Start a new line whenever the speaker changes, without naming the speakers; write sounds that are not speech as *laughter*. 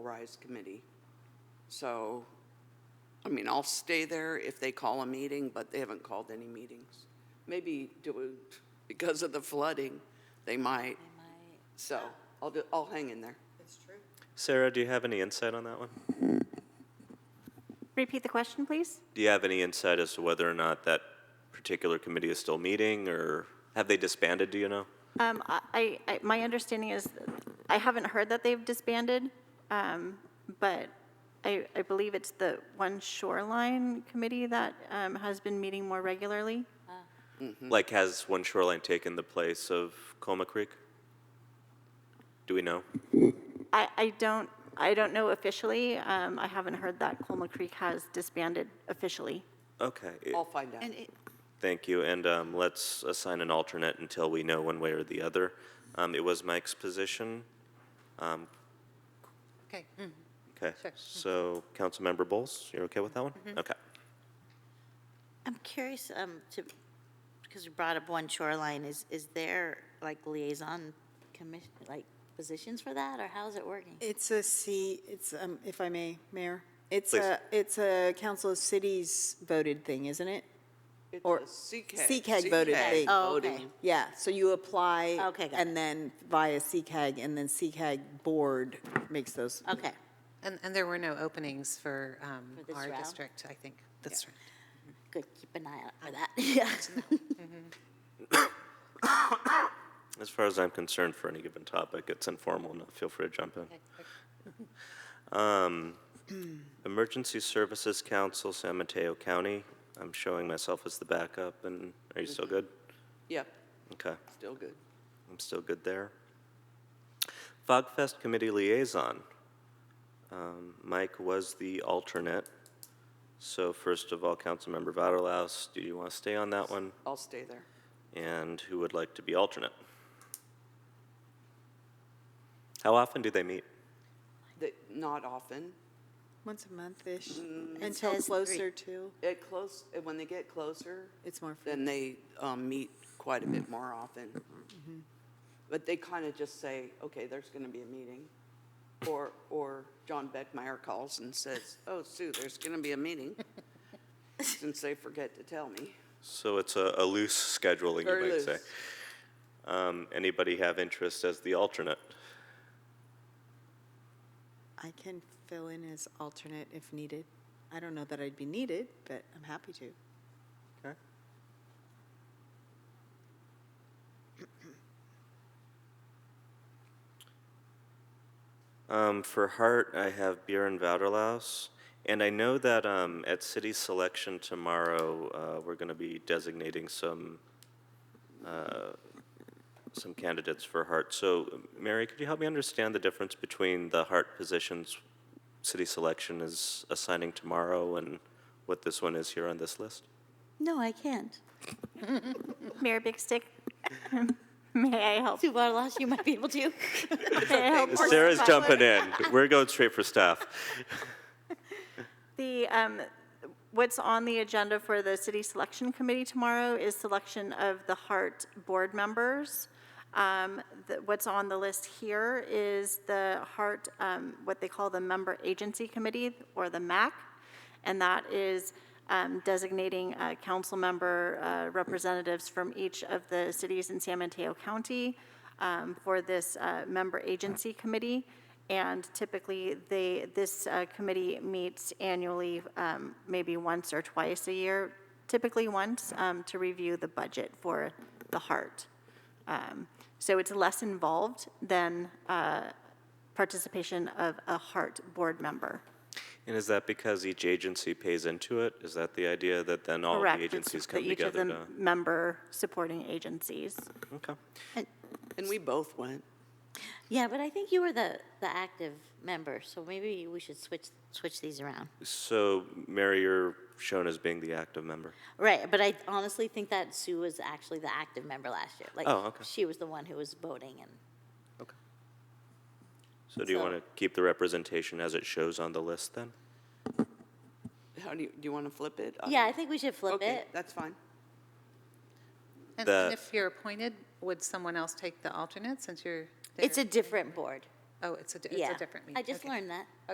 Rise Committee. So, I mean, I'll stay there if they call a meeting, but they haven't called any meetings. Maybe do it because of the flooding, they might, so I'll, do- I'll hang in there.
Sarah, do you have any insight on that one?
Repeat the question, please?
Do you have any insight as to whether or not that particular committee is still meeting, or have they disbanded, do you know?
Um, I, I, my understanding is, I haven't heard that they've disbanded, um, but I, I believe it's the one shoreline committee that, um, has been meeting more regularly.
Like, has One Shoreline taken the place of Coma Creek? Do we know?
I, I don't, I don't know officially, um, I haven't heard that Colma Creek has disbanded officially.
Okay, i-
I'll find out.
And it,
thank you, and um, let's assign an alternate until we know one way or the other. Um, It was Mike's position. Um,
okay, mm,
Okay,
Sure.
so Councilmember Bowles, you're okay with that one? Okay.
I'm curious, um, to, because you brought up One Shoreline, is, is there like liaison commission, like positions for that, or how's it working?
It's a C, it's, um, if I may, Mayor, it's
Please.
a, it's a Council of Cities voted thing, isn't it?
It's
Or
a CCAG.
CCAG voted
CCAG
thing.
Oh, okay.
voting.
Yeah, so you apply.
Okay, got
And then via CCAG, and then CCAG board makes those.
Okay,
and, and there were no openings for um,
For this
our
round?
district, I think, this round.
good, keep an eye out for that, *laughs* yeah.
As far as I'm concerned, for any given topic, it's informal enough. Feel free to jump in. Um, Emergency Services Council, San Mateo County. I'm showing myself as the backup, and are you still good?
Yep,
Okay,
still good.
I'm still good there. Fogfest Committee Liaison. Um, Mike was the alternate. So first of all, Councilmember Vaterlaus, do you want to stay on that one?
I'll stay there.
And who would like to be alternate? How often do they meet?
They- Not often.
Once a month-ish,
Mm, It
until
says three.
closer to,
It close, when they get closer,
it's more. fun.
then they um, meet quite a bit more often. But they kind of just say, okay, there's going to be a meeting. Or, or John Beckmeyer calls and says, oh, Sue, there's going to be a meeting, since they forget to tell me.
So it's a, a loose scheduling,
Very
you might say.
loose.
Um, anybody have interest as the alternate?
I can fill in as alternate if needed. I don't know that I'd be needed, but I'm happy to.
Okay. Um, for Hart, I have Bjorn Vaderlaus. And I know that um, at city selection tomorrow, uh, we're going to be designating some uh, some candidates for Hart. So, Mary, could you help me understand the difference between the Hart positions city selection is assigning tomorrow and what this one is here on this list?
No, I can't.
Mayor Big Stick, *laughs* may I help?
Sue Bartolos, you might be able *laughs* to.
May I help?
Sarah's jumping in. *laughs* We're going straight for staff.
The, um, what's on the agenda for the city selection committee tomorrow is selection of the Hart board members. Um, the- What's on the list here is the Hart, um, what they call the Member Agency Committee, or the MAC, and that is um, designating uh, council member uh, representatives from each of the cities in San Mateo County um, for this uh, Member Agency Committee. And typically, they, this uh, committee meets annually, um, maybe once or twice a year, typically once, um, to review the budget for the heart. Um, So it's less involved than uh, participation of a heart board member.
And is that because each agency pays into it? Is that the idea that then all
Correct.
the
It's
agencies
the-
come together?
Each of the member supporting agencies.
to, okay.
And we both went.
Yeah, but I think you were the, the active member, so maybe we should switch, switch these around.
So, Mary, you're shown as being the active member.
Right, but I honestly think that Sue was actually the active member last year. Like,
Oh, okay.
She was the one who was voting and.
Okay. So, do you
So-
want to keep the representation as it shows on the list then?
How do you, do you want to flip it?
Oh.
Uh,
Yeah, I think we should flip
Okay,
it.
that's fine.
And and
The-
if you're appointed, would someone else take the alternate since you're?
It's
there?
a different board.
Oh, it's a, di-
Yeah.
it's a different meeting.
I just learned that.